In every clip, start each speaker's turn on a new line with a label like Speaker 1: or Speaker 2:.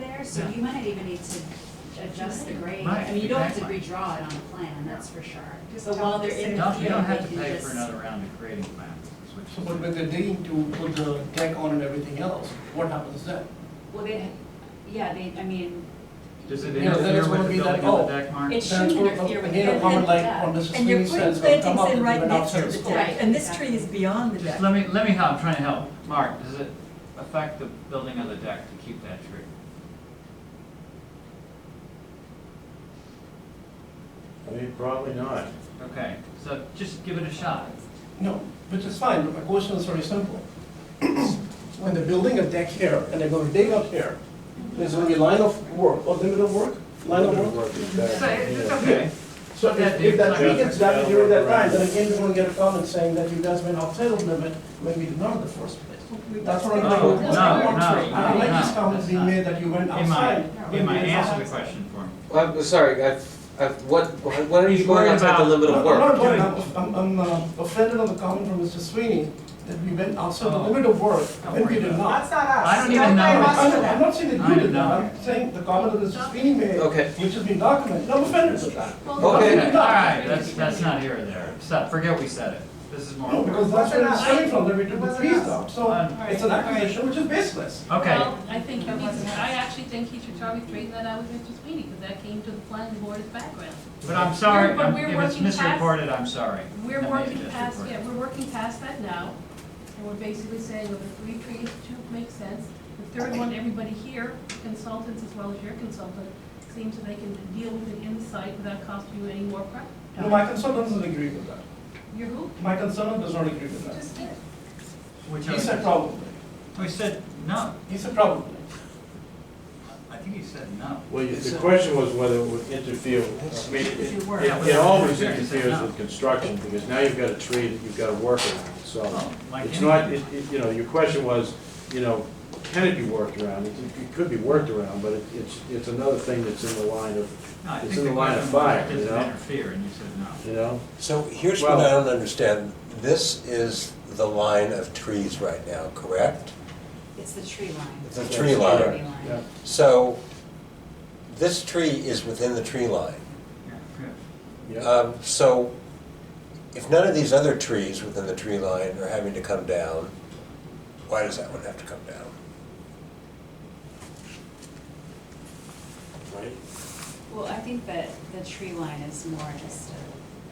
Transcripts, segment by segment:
Speaker 1: years, so you might even need to adjust the grade.
Speaker 2: Right,
Speaker 1: I mean, you don't have to
Speaker 2: exactly.
Speaker 1: redraw it on the plan, that's for sure.
Speaker 3: Just
Speaker 1: But
Speaker 3: tell
Speaker 1: while
Speaker 3: them
Speaker 1: they're
Speaker 3: to
Speaker 1: in
Speaker 3: send
Speaker 1: the
Speaker 2: No, you
Speaker 1: field,
Speaker 2: don't
Speaker 1: they
Speaker 2: have to
Speaker 1: can
Speaker 2: pay for
Speaker 1: just.
Speaker 2: another round of creating plans, is what
Speaker 4: So
Speaker 2: you're saying.
Speaker 4: but when they need to put the deck on and everything else, what happens then?
Speaker 1: Well, they, yeah, they, I mean,
Speaker 2: Does it
Speaker 4: Yeah, then
Speaker 2: interfere
Speaker 4: it's
Speaker 2: with
Speaker 4: gonna
Speaker 2: the
Speaker 4: be like,
Speaker 2: building of
Speaker 4: oh,
Speaker 2: the deck, Mark?
Speaker 3: It
Speaker 4: That's
Speaker 3: shouldn't
Speaker 4: what-
Speaker 3: interfere with
Speaker 4: Here,
Speaker 3: the
Speaker 4: a comment like
Speaker 3: deck.
Speaker 4: on Mrs.
Speaker 5: And you're
Speaker 4: Sweeney
Speaker 5: putting
Speaker 4: says, will come
Speaker 5: plantings
Speaker 4: up
Speaker 5: in
Speaker 4: and
Speaker 5: right
Speaker 4: even
Speaker 5: next to
Speaker 4: outside
Speaker 5: the
Speaker 4: school.
Speaker 5: deck, and this tree is beyond the
Speaker 2: Just
Speaker 5: deck.
Speaker 2: let me, let me help, I'm trying to help. Mark, does it affect the building of the deck to keep that tree?
Speaker 6: I mean, probably not.
Speaker 2: Okay, so just give it a shot.
Speaker 4: No, which is fine, but my question is very simple. When they're building a deck here and they're gonna dig up here, there's gonna be line of work, or limit of work, line of work.
Speaker 2: So it's it's
Speaker 6: Yeah.
Speaker 2: okay.
Speaker 4: So if, if that tree gets done during that time, then again, we're gonna get a comment saying that you guys went outside of limit when we did not in the first place. That's what I'm
Speaker 2: Oh, No,
Speaker 4: thinking.
Speaker 2: no, no,
Speaker 4: I don't like
Speaker 2: no,
Speaker 4: this comment
Speaker 2: that's
Speaker 4: being
Speaker 2: not.
Speaker 4: made that you went outside.
Speaker 2: Ema,
Speaker 4: when
Speaker 2: Ema,
Speaker 4: we did not
Speaker 2: answer the
Speaker 4: outside.
Speaker 2: question for me.
Speaker 7: Well, I'm sorry, I've, I've, what, what are
Speaker 2: He's
Speaker 7: you going
Speaker 2: worried
Speaker 7: on about the
Speaker 2: about-
Speaker 7: limit
Speaker 4: I'm
Speaker 7: of
Speaker 4: not
Speaker 7: work?
Speaker 4: worried, I'm, I'm uh, offended on the comment from Mr. Sweeney that we went outside the
Speaker 2: Oh.
Speaker 4: limit of work
Speaker 2: Don't
Speaker 4: when
Speaker 2: worry
Speaker 4: we did
Speaker 2: about
Speaker 4: not.
Speaker 3: That's not us.
Speaker 2: I don't
Speaker 3: blame
Speaker 2: even know.
Speaker 3: us
Speaker 4: I'm
Speaker 3: for
Speaker 4: not,
Speaker 3: that.
Speaker 4: I'm not saying that
Speaker 2: I
Speaker 4: you did
Speaker 2: know.
Speaker 4: that, I'm saying the comment that Mr. Sweeney made,
Speaker 7: Okay.
Speaker 4: which has been documented, I'm offended with that.
Speaker 7: Okay.
Speaker 2: All right, that's, that's not here or there. Stop, forget we said it. This is more.
Speaker 4: No, because that's where it's coming from, that we took the
Speaker 3: Wasn't
Speaker 4: trees
Speaker 3: us.
Speaker 4: down, so
Speaker 2: Alright,
Speaker 4: it's an
Speaker 8: alright.
Speaker 4: accusation which is baseless.
Speaker 2: Okay,
Speaker 8: Well, I think he
Speaker 3: That
Speaker 8: needs,
Speaker 3: wasn't us.
Speaker 8: I actually think he should probably straighten that out with Mr. Sweeney, because that came to the planning board as background.
Speaker 2: but I'm sorry,
Speaker 8: We're- but
Speaker 2: I'm-
Speaker 8: we're
Speaker 2: if it's
Speaker 8: working past-
Speaker 2: misreported, I'm sorry. I may
Speaker 8: We're
Speaker 2: have
Speaker 8: working
Speaker 2: just
Speaker 8: past,
Speaker 2: reported.
Speaker 8: yeah, we're working past that now, and we're basically saying of the three trees, two make sense. The third one, everybody here, consultants as well as your consultant, seems that they can deal with it inside without costing you any more prep.
Speaker 4: No, my consultant doesn't agree with that.
Speaker 8: You're who?
Speaker 4: My consultant does not agree with that.
Speaker 8: Just did.
Speaker 2: Which
Speaker 4: He said
Speaker 2: other,
Speaker 4: probably,
Speaker 2: we said no.
Speaker 4: he said probably.
Speaker 2: I think he said no.
Speaker 6: Well, you- the question was whether it would interfere, I mean, it-
Speaker 2: It
Speaker 6: it,
Speaker 2: worked. Yeah, but
Speaker 6: it always
Speaker 2: it interferes,
Speaker 6: interferes
Speaker 2: no.
Speaker 6: with construction, because now you've got a tree that you've got to work around,
Speaker 2: Oh,
Speaker 6: so.
Speaker 2: like
Speaker 6: It's not,
Speaker 2: anything.
Speaker 6: it, it- you know, your question was, you know, can it be worked around? It, it could be worked around, but it- it's, it's another thing that's in the line of,
Speaker 2: No, I
Speaker 6: it's
Speaker 2: think
Speaker 6: in
Speaker 2: the
Speaker 6: the line of
Speaker 2: question was,
Speaker 6: fire,
Speaker 2: does
Speaker 6: you
Speaker 2: it
Speaker 6: know?
Speaker 2: interfere, and you said no.
Speaker 6: you know?
Speaker 9: So here's what I
Speaker 6: Well-
Speaker 9: don't understand. This is the line of trees right now, correct?
Speaker 1: It's the tree line.
Speaker 9: It's a
Speaker 1: the
Speaker 9: tree
Speaker 1: Tree
Speaker 9: line.
Speaker 1: line.
Speaker 6: Yeah.
Speaker 9: So this tree is within the tree line.
Speaker 2: Yeah, good.
Speaker 6: Yeah,
Speaker 9: Um, So if none of these other trees within the tree line are having to come down, why does that one have to come down?
Speaker 6: right.
Speaker 1: Well, I think that the tree line is more just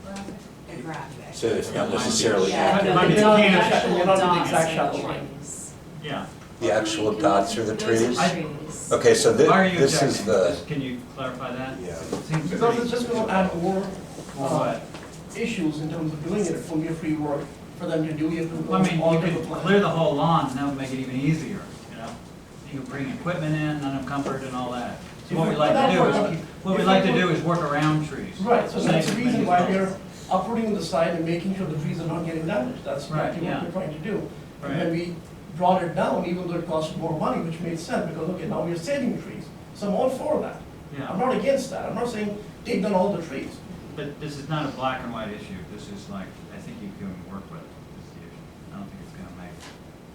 Speaker 1: a- a graphic.
Speaker 9: So it's not
Speaker 2: Barely.
Speaker 9: necessarily
Speaker 1: Yeah,
Speaker 2: Might-
Speaker 1: the-
Speaker 2: might be
Speaker 1: the
Speaker 2: the can of
Speaker 1: actual
Speaker 4: shadow, not the
Speaker 1: dots
Speaker 4: exact
Speaker 1: are
Speaker 4: shadow
Speaker 1: the
Speaker 4: line.
Speaker 1: trees.
Speaker 2: Yeah.
Speaker 9: the actual dots or the trees?
Speaker 1: Those are
Speaker 2: trees?
Speaker 1: trees.
Speaker 9: Okay, so thi-
Speaker 2: Why are you
Speaker 9: this is
Speaker 2: objecting?
Speaker 9: the,
Speaker 2: Just- Can you clarify that?
Speaker 9: Yeah.
Speaker 2: It seems
Speaker 4: Because
Speaker 2: pretty-
Speaker 4: it's just gonna add more uh,
Speaker 2: Well,
Speaker 4: issues in terms of doing it from your free work, for them to do it, to
Speaker 2: what? I mean, you
Speaker 4: alter the
Speaker 2: could
Speaker 4: plan.
Speaker 2: clear the whole lawn, and that would make it even easier, you know? You could bring equipment in, none of comfort and all that. So what we like to do is, keep- what we like to do is work around trees.
Speaker 4: Right, so that's the
Speaker 2: Make it-
Speaker 4: reason
Speaker 2: make it
Speaker 4: why
Speaker 2: look-
Speaker 4: we're uprooting the side and making sure the trees are not getting damaged, that's
Speaker 2: Right,
Speaker 4: exactly what
Speaker 2: yeah.
Speaker 4: we're trying to do. And
Speaker 2: Right.
Speaker 4: when we brought it down, even though it cost more money, which made sense, because, okay, now we're saving trees, so I'm all for that. I'm
Speaker 2: Yeah,
Speaker 4: not against that, I'm not saying take down all the trees.
Speaker 2: but this is not a black and white issue, this is like, I think you can work with it, is the issue. I don't think it's gonna make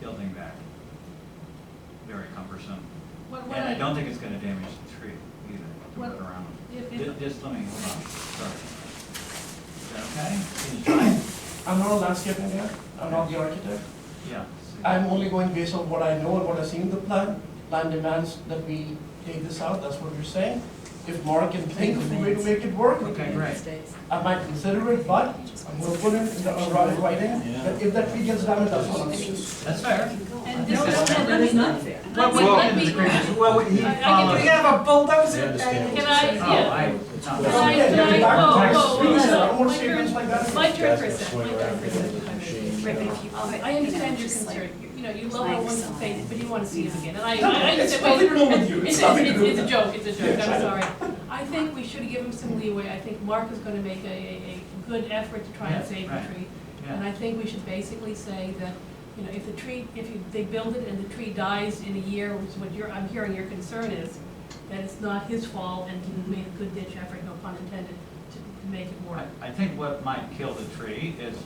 Speaker 2: building that very cumbersome.
Speaker 8: What, what
Speaker 2: And I
Speaker 8: I,
Speaker 2: don't think it's gonna damage the tree either, to
Speaker 8: What-
Speaker 2: work around them.
Speaker 8: if,
Speaker 2: Ju-
Speaker 8: if,
Speaker 2: Just let me, hold on, sorry. Is that okay? Can you try it?
Speaker 4: I'm not a landscape engineer, I'm not the architect.
Speaker 2: Yeah.
Speaker 4: I'm only going based on what I know and what I see in the plan. Plan demands that we take this out, that's what we're saying. If Mark can think of a way to make it work,
Speaker 2: Okay, great.
Speaker 4: I might consider it, but I'm gonna put it in the uh, right writing. But if that tree gets damaged, that's what I'm saying.
Speaker 2: That's fair.
Speaker 8: and
Speaker 2: No,
Speaker 8: this
Speaker 2: no,
Speaker 8: is,
Speaker 2: no,
Speaker 8: and let me,
Speaker 5: fair.
Speaker 8: let me, let me.
Speaker 2: Well, he
Speaker 8: I- I can
Speaker 2: followed.
Speaker 8: do
Speaker 3: We have a bulldozer.
Speaker 6: I understand.
Speaker 8: Can I-
Speaker 2: Oh,
Speaker 8: yeah.
Speaker 2: I,
Speaker 4: That's
Speaker 8: Can I-
Speaker 4: okay,
Speaker 8: can I-
Speaker 4: you're back to
Speaker 8: whoa, whoa,
Speaker 4: tax trees,
Speaker 8: whoa,
Speaker 4: I don't want
Speaker 8: whoa.
Speaker 4: statements like that.
Speaker 8: My turn
Speaker 6: Guys
Speaker 8: for a
Speaker 6: can
Speaker 8: second,
Speaker 6: swing
Speaker 8: my turn
Speaker 6: around
Speaker 8: for a second. if I
Speaker 6: machine,
Speaker 8: may.
Speaker 6: you
Speaker 8: Right,
Speaker 6: know.
Speaker 8: but if you- Um, I understand your concern, you you know, you love how one's face, but you wanna see it again, and I,
Speaker 4: No,
Speaker 8: I, I
Speaker 4: it's
Speaker 8: understand,
Speaker 4: nothing wrong with
Speaker 8: but
Speaker 4: you.
Speaker 8: it's,
Speaker 4: It's nothing
Speaker 8: it's,
Speaker 4: wrong
Speaker 8: it's a
Speaker 4: with
Speaker 8: joke, it's a joke,
Speaker 4: Yes, I
Speaker 8: I'm
Speaker 4: know.
Speaker 8: sorry. I think we should give him some leeway, I think Mark is gonna make a, a, a good effort to try and
Speaker 2: Yeah,
Speaker 8: save the
Speaker 2: right.
Speaker 8: tree. And
Speaker 2: yeah,
Speaker 8: I think we should basically say that, you know, if the tree, if you, they build it and the tree dies in a year, which is what you're, I'm hearing your concern is, that it's not his fault and he made a good ditch effort, no pun intended, to to make it work.
Speaker 2: I- I think what might kill the tree is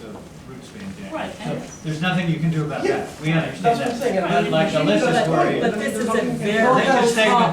Speaker 2: the roots being damaged.
Speaker 8: Right, and-
Speaker 2: There's nothing you can do about
Speaker 4: Yeah.
Speaker 2: that. We
Speaker 4: That's what I'm
Speaker 2: understand that.
Speaker 4: saying.
Speaker 2: But like Alyssa's
Speaker 4: But-
Speaker 2: worried,
Speaker 5: But this is a
Speaker 4: There's nothing-
Speaker 5: very
Speaker 2: Alyssa's
Speaker 5: low
Speaker 2: statement